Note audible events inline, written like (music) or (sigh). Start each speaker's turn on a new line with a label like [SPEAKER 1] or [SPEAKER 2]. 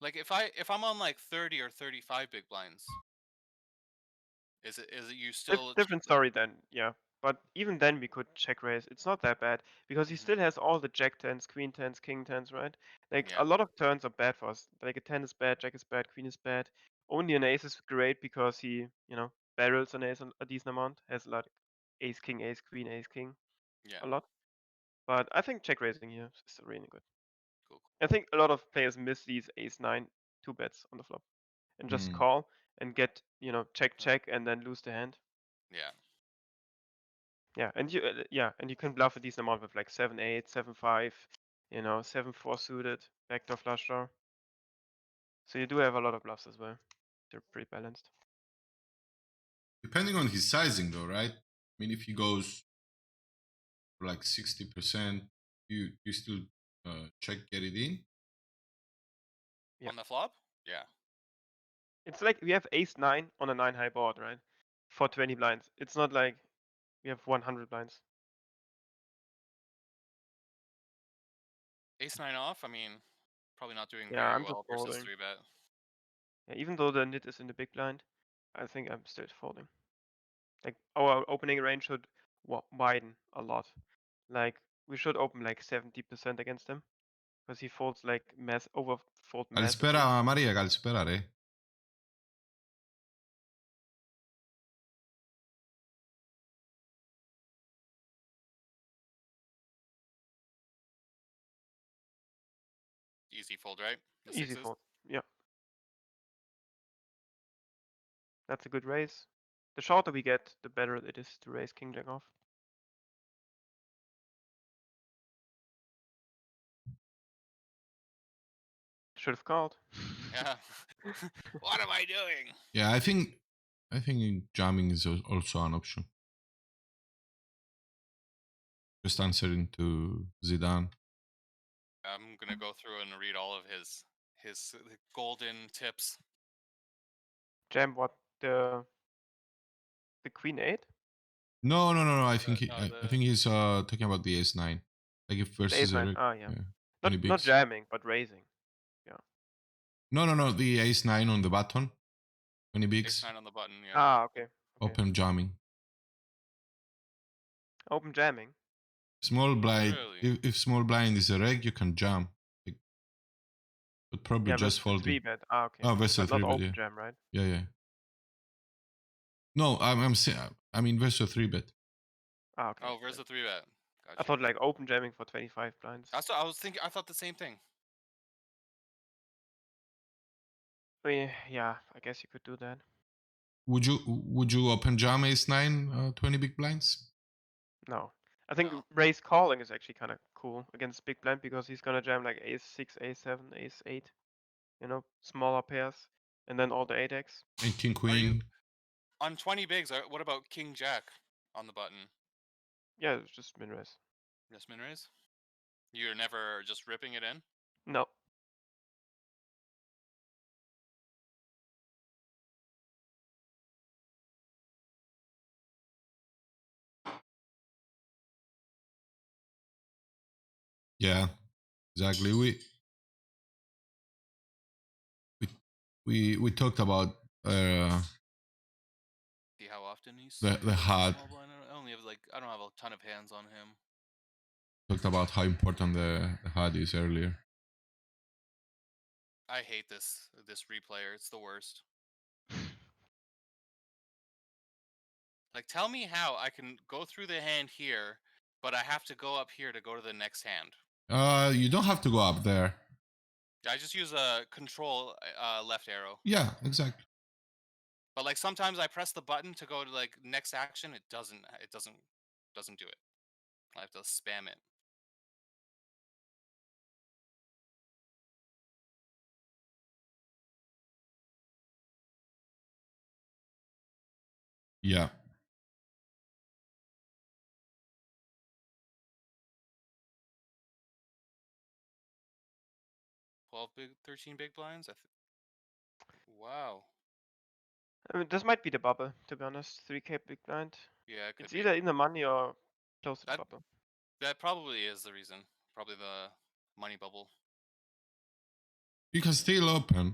[SPEAKER 1] Like if I if I'm on like 30 or 35 big blinds, is it is it you
[SPEAKER 2] It's
[SPEAKER 1] still?
[SPEAKER 2] different story then, yeah. But even then we could check raise. It's not that bad because
[SPEAKER 1] Mm-hmm.
[SPEAKER 2] he still has all the jack tens, queen tens, king tens, right? Like
[SPEAKER 1] Yeah.
[SPEAKER 2] a lot of turns are bad for us. Like a ten is bad, jack is bad, queen is bad. Only an ace is great because he, you know, barrels an ace an- a decent amount. Has like ace king, ace queen, ace king
[SPEAKER 1] Yeah.
[SPEAKER 2] a lot. But I think check raising here is really good.
[SPEAKER 1] Cool, cool.
[SPEAKER 2] I think a lot of players miss these ace nine two bets on the flop and just
[SPEAKER 3] Mm.
[SPEAKER 2] call and get you know
[SPEAKER 1] Mm.
[SPEAKER 2] check check and then lose the hand.
[SPEAKER 1] Yeah.
[SPEAKER 2] Yeah, and you uh, yeah, and you can bluff a decent amount with like seven eight, seven five, you know, seven four suited, backdoor flush draw. So you do have a lot of bluffs as well. They're pretty balanced.
[SPEAKER 3] Depending on his sizing, though, right? I mean, if he goes for like sixty percent, you you still uh, check get it in.
[SPEAKER 2] Yeah.
[SPEAKER 1] On the flop? Yeah.
[SPEAKER 2] It's like we have ace nine on a nine high board, right? For twenty blinds. It's not like we have one hundred blinds.
[SPEAKER 1] Ace nine off. I mean, probably not doing
[SPEAKER 2] Yeah,
[SPEAKER 1] very
[SPEAKER 2] I'm just
[SPEAKER 1] well versus
[SPEAKER 2] folding.
[SPEAKER 1] three bet.
[SPEAKER 2] Yeah, even though the nit is in the big blind, I think I'm still folding. Like our opening range should wa- widen a lot. Like we should open like 70% against him, because he folds like mass over fold mass.
[SPEAKER 3] Καλησπέρα, Μαρία, καλησπέρα, ρε.
[SPEAKER 1] Easy fold, right? The
[SPEAKER 2] Easy
[SPEAKER 1] sixes?
[SPEAKER 2] fold. Yeah. That's a good raise. The shorter we get, the better it is to raise king jack off. Should have
[SPEAKER 3] (laughs)
[SPEAKER 2] called.
[SPEAKER 1] Yeah. (laughs) what am I doing?
[SPEAKER 3] Yeah, I think I think jamming is al- also an option. Just answering to Zidane.
[SPEAKER 1] I'm
[SPEAKER 2] (laughs)
[SPEAKER 1] gonna go through and read all of his his uh, golden tips.
[SPEAKER 2] Jam what the the queen eight?
[SPEAKER 3] No, no, no, no. I think he,
[SPEAKER 1] no,
[SPEAKER 3] I, I
[SPEAKER 1] the-
[SPEAKER 3] think he's uh, talking about the ace nine, like if
[SPEAKER 2] The
[SPEAKER 3] versus
[SPEAKER 2] ace
[SPEAKER 3] a
[SPEAKER 2] nine.
[SPEAKER 3] re-
[SPEAKER 2] Ah yeah.
[SPEAKER 3] yeah.
[SPEAKER 2] Not,
[SPEAKER 3] Any
[SPEAKER 2] not
[SPEAKER 3] bigs.
[SPEAKER 2] jamming, but raising.
[SPEAKER 3] no, no, no. The ace nine on the button when he
[SPEAKER 1] Ace
[SPEAKER 3] bigs,
[SPEAKER 1] nine on the button. Yeah.
[SPEAKER 2] Ah okay. okay.
[SPEAKER 3] open jamming,
[SPEAKER 2] Open jamming.
[SPEAKER 3] small blind.
[SPEAKER 1] Really?
[SPEAKER 3] If, if small blind is a reg, you can jam, like, but probably
[SPEAKER 2] Yeah,
[SPEAKER 3] just
[SPEAKER 2] versus the three
[SPEAKER 3] folding.
[SPEAKER 2] bet. Ah okay.
[SPEAKER 3] Oh, versus
[SPEAKER 2] But
[SPEAKER 3] three
[SPEAKER 2] not
[SPEAKER 3] bet.
[SPEAKER 2] open
[SPEAKER 3] Yeah.
[SPEAKER 2] jam, right?
[SPEAKER 3] yeah, yeah. No, I'm, I'm saying, I mean, versus three bet.
[SPEAKER 2] Ah okay.
[SPEAKER 1] oh, where's the three bet?
[SPEAKER 2] I
[SPEAKER 1] Gotcha.
[SPEAKER 2] thought like open jamming for 25 blinds.
[SPEAKER 1] That's what I was thinking. I thought the same thing.
[SPEAKER 2] I mean, yeah, I guess you could do that.
[SPEAKER 3] Would you would you open jam ace nine uh, 20 big blinds?
[SPEAKER 2] No. I think
[SPEAKER 1] No.
[SPEAKER 2] raise calling is actually kind of cool against big blind because he's gonna jam like ace six, ace seven, ace eight, you know, smaller pairs, and then all the eight x.
[SPEAKER 3] And king queen.
[SPEAKER 1] On 20 bigs, uh, what about King Jack on the button?
[SPEAKER 2] Yeah, it's just min raise.
[SPEAKER 1] Yes, min raise. You're never just ripping it in.
[SPEAKER 2] No,
[SPEAKER 3] Yeah, exactly. We we we, we talked about uh,
[SPEAKER 1] See how often he's
[SPEAKER 3] the the heart.
[SPEAKER 1] I only have like I don't have a ton of hands on him.
[SPEAKER 3] Talked about how important the, the heart is earlier.
[SPEAKER 1] I hate this this replayer. It's the worst. Like, tell me how I can go through the hand here, but I have to go up here to go to the next hand.
[SPEAKER 3] Uh, you don't have to go up there.
[SPEAKER 1] I just use a control uh, left arrow.
[SPEAKER 3] Yeah, exactly.
[SPEAKER 1] But like sometimes I press the button to go to like next action. It doesn't. It doesn't. Doesn't do it. I have to spam it.
[SPEAKER 3] Yeah.
[SPEAKER 1] Twelve big, thirteen big blinds. I th- wow.
[SPEAKER 2] I mean, this might be the bubble, to be honest. 3k big blind.
[SPEAKER 1] Yeah. It could
[SPEAKER 2] It's
[SPEAKER 1] be.
[SPEAKER 2] either in the money or close to the
[SPEAKER 1] That-
[SPEAKER 2] bubble.
[SPEAKER 1] That probably is the reason. Probably the money bubble.
[SPEAKER 3] You can still open.